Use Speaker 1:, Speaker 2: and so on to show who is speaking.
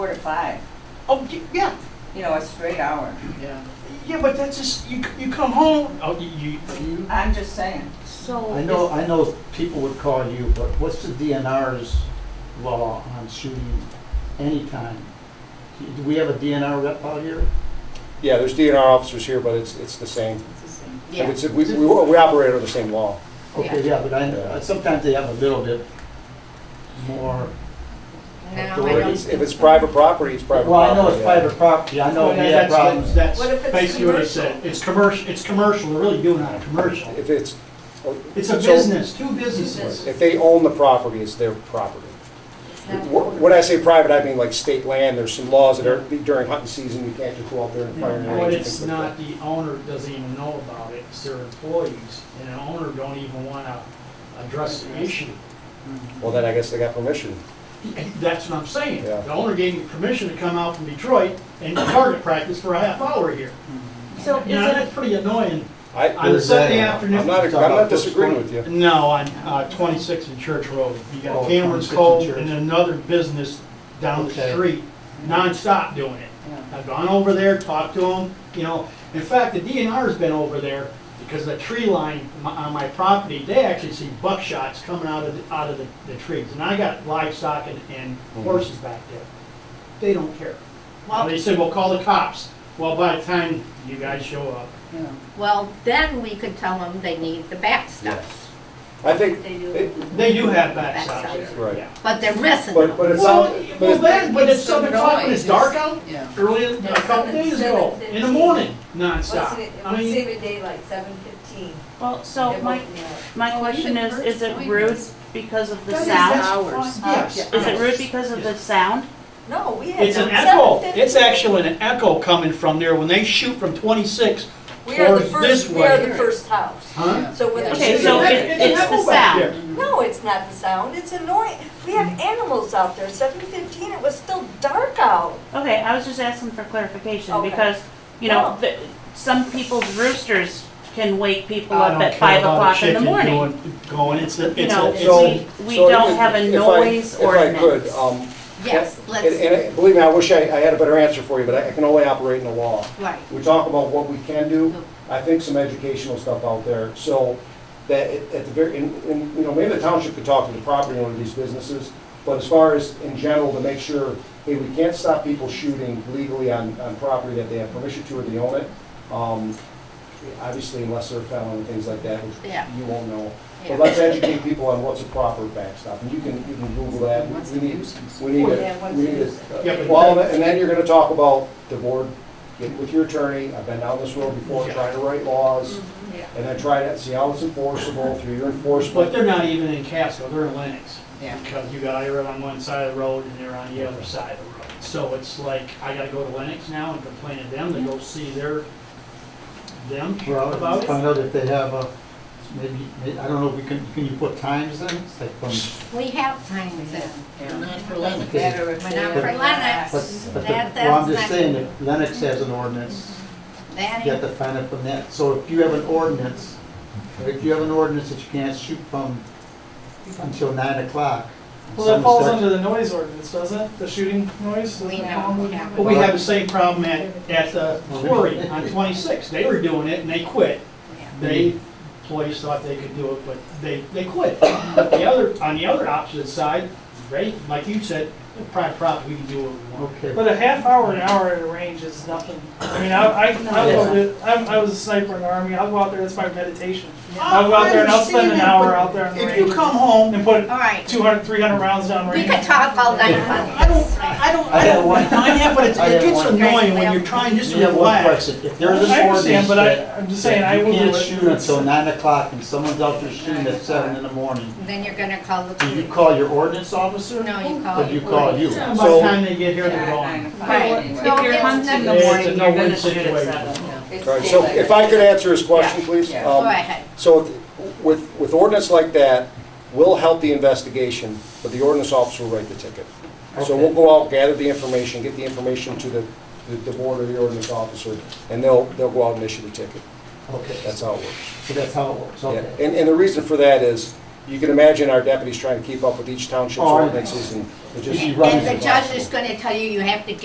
Speaker 1: five,
Speaker 2: Oh, y- yeah,
Speaker 1: you know, a straight hour.
Speaker 3: Yeah.
Speaker 2: yeah, but that's just, you, you come home, oh, you, you, you-
Speaker 1: I'm just saying,
Speaker 4: So.
Speaker 3: I know,
Speaker 4: is-
Speaker 3: I know people would call you, but what's the DNR's law on shooting anytime? Do we have a DNR rep out here?
Speaker 5: Yeah, there's DNR officers here, but it's, it's the same.
Speaker 4: Yeah.
Speaker 5: It's- We, we we operate under the same law.
Speaker 3: Okay, yeah, but I, sometimes they have a little bit more.
Speaker 4: Now I
Speaker 3: Or
Speaker 4: don't-
Speaker 5: It's- If it's private property, it's private property.
Speaker 3: Well, I know it's
Speaker 5: yeah.
Speaker 3: private property, I know
Speaker 6: Well,
Speaker 3: we have
Speaker 6: that's-
Speaker 3: problems.
Speaker 6: That's
Speaker 1: What if
Speaker 6: that's
Speaker 1: it's
Speaker 6: basically what I
Speaker 1: commercial?
Speaker 6: said. It's commercial, it's commercial, we're really doing it commercial.
Speaker 5: If it's.
Speaker 6: It's a
Speaker 5: so
Speaker 6: business, two businesses.
Speaker 5: If they own the property, it's their property.
Speaker 4: it's not-
Speaker 5: Wh- When I say private, I mean like state land, there's some laws that are, during hunting season, you can't just go out there and fire an arrow.
Speaker 6: But it's not, the owner doesn't even know about it, it's their employees, and the owner don't even want to address the issue. Mm-hmm.
Speaker 5: Well, then I guess they got permission.
Speaker 6: That's what I'm saying.
Speaker 5: Yeah.
Speaker 6: The owner gave me permission to come out from Detroit and target practice for a half hour here.
Speaker 4: So is
Speaker 6: You know,
Speaker 4: it,
Speaker 6: that's pretty annoying
Speaker 5: I,
Speaker 6: on
Speaker 5: I'm
Speaker 6: a
Speaker 3: Where's that
Speaker 6: Sunday
Speaker 3: at?
Speaker 6: afternoon.
Speaker 5: not, uh, I'm not disagreeing with you.
Speaker 6: No, on uh, 26 and Church Road. You
Speaker 3: Oh,
Speaker 6: got Cameron's
Speaker 3: 26 and
Speaker 6: Cove
Speaker 3: Church.
Speaker 6: and another business down
Speaker 3: Okay.
Speaker 6: the street, nonstop doing it.
Speaker 1: yeah.
Speaker 6: I've gone over there, talked to them, you know, in fact, the DNR's been over there because the tree line m- on my property, they actually see buckshots coming out of, the- out of the, the trees. And I got livestock and, and
Speaker 3: Mm-hmm.
Speaker 6: horses back there. They don't care.
Speaker 4: well,
Speaker 6: They said, well, call the cops. Well, by the time you guys show up,
Speaker 1: you know.
Speaker 4: well, then we could tell them they need the back stuff,
Speaker 5: I think,
Speaker 1: They do.
Speaker 5: it-
Speaker 6: they do have backs out
Speaker 4: Backsides.
Speaker 6: there,
Speaker 5: Right.
Speaker 6: yeah.
Speaker 4: but they're missing
Speaker 5: but,
Speaker 4: them.
Speaker 5: but it's
Speaker 6: Well,
Speaker 5: not,
Speaker 6: y-
Speaker 5: but
Speaker 6: well,
Speaker 5: it's-
Speaker 6: then, but it's
Speaker 1: it's
Speaker 6: seven
Speaker 1: the
Speaker 6: o'clock when it's
Speaker 1: noise.
Speaker 6: dark out,
Speaker 3: Yeah.
Speaker 6: early, in- a
Speaker 1: Yeah,
Speaker 6: couple
Speaker 1: seven-
Speaker 6: days ago, in the
Speaker 7: 7:15.
Speaker 6: morning,
Speaker 7: What's
Speaker 6: nonstop.
Speaker 7: it,
Speaker 6: I
Speaker 7: what's
Speaker 6: mean,
Speaker 7: it a day like, seven fifteen?
Speaker 8: Well, so my, my question is, is it rude because of the
Speaker 6: that is- that's
Speaker 8: sound?
Speaker 6: fine. Yes.
Speaker 8: Is it rude because of the sound?
Speaker 7: No, we had.
Speaker 6: It's an
Speaker 7: no-
Speaker 6: echo.
Speaker 7: 7:15.
Speaker 6: It's actually an echo coming from there when they shoot from 26
Speaker 7: We are the
Speaker 6: towards this
Speaker 7: first, we are
Speaker 6: way.
Speaker 7: the first house.
Speaker 6: Huh?
Speaker 7: So when.
Speaker 1: Yeah.
Speaker 7: the
Speaker 8: Okay,
Speaker 7: shooter-
Speaker 8: so it-
Speaker 6: an
Speaker 8: it's the
Speaker 6: echo back there.
Speaker 7: No, it's not the sound, it's annoying. We have animals out there. Seven fifteen, it was still dark out.
Speaker 8: Okay, I was just asking for clarification
Speaker 7: Okay.
Speaker 8: because, you know,
Speaker 7: No.
Speaker 8: the- some people's roosters can wake people
Speaker 6: I
Speaker 8: up
Speaker 6: don't
Speaker 8: at
Speaker 6: care
Speaker 8: five
Speaker 6: about a
Speaker 8: o'clock in the
Speaker 6: chicken
Speaker 8: morning.
Speaker 6: going, going, it's a,
Speaker 8: You
Speaker 6: it's
Speaker 8: know,
Speaker 6: a, it's
Speaker 5: So-
Speaker 6: a.
Speaker 8: we, we
Speaker 5: so
Speaker 8: don't
Speaker 5: if-
Speaker 8: have a
Speaker 5: if I-
Speaker 8: noise
Speaker 5: If
Speaker 8: ordinance.
Speaker 5: I could, um,
Speaker 4: Yes,
Speaker 5: And, and
Speaker 4: let's,
Speaker 5: I- believe me, I wish I, I had a better answer for you, but I I can only operate in the law.
Speaker 4: right.
Speaker 5: We talk about what we can do, I think some educational stuff out there, so that it- at the very, and, and, you know, maybe the township could talk to the property owner of these businesses, but as far as in general, to make sure, hey, we can't stop people shooting legally on, on property that they have permission to or they own it. Um, Obviously, unless they're a felon and things like that, which
Speaker 4: Yeah.
Speaker 5: you won't know.
Speaker 4: Yeah.
Speaker 5: But let's educate people on what's a proper backstop, and you can, you can Google that. We-
Speaker 3: What's
Speaker 5: we
Speaker 3: the
Speaker 5: need-
Speaker 3: nuisance?
Speaker 5: We need
Speaker 7: Yeah,
Speaker 5: it,
Speaker 7: what's
Speaker 5: we
Speaker 7: the
Speaker 5: need
Speaker 7: nuisance?
Speaker 6: Yeah, but
Speaker 5: it. Well, and then you're gonna talk about the board, get with your attorney, I've been down this road before, trying to write laws,
Speaker 7: Mm-hmm.
Speaker 8: Mm-hmm.
Speaker 7: Yeah.
Speaker 5: and then try to see how it's enforceable through your
Speaker 6: But
Speaker 5: enforcement.
Speaker 6: they're not even in Casco, they're in Lennox.
Speaker 3: Yeah.
Speaker 6: Because you got Ira on one side of the road and they're on the other side of the road. So it's like, I gotta go to Lennox now and complain to them, to go see their, them
Speaker 3: Well,
Speaker 6: about it.
Speaker 3: find out if they have a, maybe, may- I don't know, we can, can you put times in? It's like from-
Speaker 4: We have times in, not for Lennox.
Speaker 3: Okay.
Speaker 1: Better if
Speaker 4: But
Speaker 1: they
Speaker 4: not
Speaker 1: were
Speaker 4: for
Speaker 1: relaxed.
Speaker 3: but-
Speaker 4: Lennox.
Speaker 3: but the-
Speaker 4: That-
Speaker 3: Well, I'm
Speaker 4: that's
Speaker 3: just
Speaker 4: not-
Speaker 3: saying, if Lennox has an ordinance,
Speaker 4: That
Speaker 3: you have
Speaker 4: ain't,
Speaker 3: to find out from that. So if you have an ordinance, if you have an ordinance that you can't shoot from until nine o'clock.
Speaker 9: Well, that
Speaker 3: some
Speaker 9: falls
Speaker 3: section-
Speaker 9: under the noise ordinance, doesn't it? The shooting noise?
Speaker 4: we
Speaker 9: doesn't it?
Speaker 4: know we have.
Speaker 6: But we have the same problem at, at the
Speaker 3: Well, we-
Speaker 6: quarry on 26. They were doing it and they quit. They, employees thought they could do it, but they, they quit. The other, on the other opposite side, they, like you said, private property, we can do what we want.
Speaker 3: Okay.
Speaker 9: But a half hour, an hour at a range is nothing. I mean, I, I, I,
Speaker 3: No.
Speaker 9: go to- I'm- I was a sniper in the army. I'll go out there, that's my meditation.
Speaker 6: I
Speaker 4: Oh,
Speaker 9: I'll go out there and I'll spend an
Speaker 6: Oh, understand that,
Speaker 9: hour
Speaker 6: but
Speaker 9: out there on the
Speaker 6: If you
Speaker 9: range
Speaker 6: come home,
Speaker 9: and put
Speaker 4: All right,
Speaker 9: 200, 300 rounds down
Speaker 4: we
Speaker 9: range.
Speaker 4: could talk all night
Speaker 6: I
Speaker 4: about
Speaker 6: don't,
Speaker 4: this.
Speaker 6: I don't,
Speaker 3: I
Speaker 6: I don't
Speaker 3: got one.
Speaker 6: mind that, but it's-
Speaker 3: I
Speaker 6: it
Speaker 3: got
Speaker 6: gets
Speaker 3: one.
Speaker 6: annoying when you're trying just
Speaker 3: You
Speaker 6: to
Speaker 3: have one
Speaker 6: relax.
Speaker 3: question. If
Speaker 9: I
Speaker 3: there's an ordinance
Speaker 9: understand, but I,
Speaker 3: that
Speaker 9: I'm just
Speaker 3: that
Speaker 9: saying, I will
Speaker 3: you
Speaker 9: do
Speaker 3: can't
Speaker 9: it.
Speaker 3: shoot until nine o'clock and someone's out there shooting at seven in the morning,
Speaker 4: Then you're gonna call the
Speaker 3: do you
Speaker 4: police.
Speaker 3: call your ordinance officer?
Speaker 4: No, you call.
Speaker 3: Or do you call you?
Speaker 6: By
Speaker 5: So-
Speaker 6: the time they get here, they're
Speaker 1: Yeah,
Speaker 6: gone.
Speaker 1: nine to five
Speaker 4: Right.
Speaker 1: anyway.
Speaker 4: No,
Speaker 8: If you're
Speaker 4: it's
Speaker 8: hunting in the
Speaker 4: nothing.
Speaker 8: morning,
Speaker 6: It's a
Speaker 8: you're
Speaker 6: no-win
Speaker 8: gonna shoot at
Speaker 6: situation.
Speaker 8: seven.
Speaker 1: It's
Speaker 5: All right, so
Speaker 1: daylight.
Speaker 5: if I could answer his question, please.
Speaker 1: yeah.
Speaker 4: Go
Speaker 5: Um,
Speaker 4: ahead.
Speaker 5: So with- with, with ordinance like that, we'll help the investigation, but the ordinance officer will write the ticket. So we'll
Speaker 3: Okay.
Speaker 5: go out, gather the information, get the information to the, the- the board or the ordinance officer, and they'll, they'll go out and issue the ticket.
Speaker 3: Okay,
Speaker 5: That's how it works.
Speaker 3: so that's how it works,
Speaker 5: Yeah.
Speaker 3: okay.
Speaker 5: And, and the reason for that is, you can imagine our deputies trying to keep up with each township's
Speaker 3: Oh, I know.
Speaker 5: ordinances and it just.
Speaker 3: Easy
Speaker 4: And the judge is gonna tell you, you have to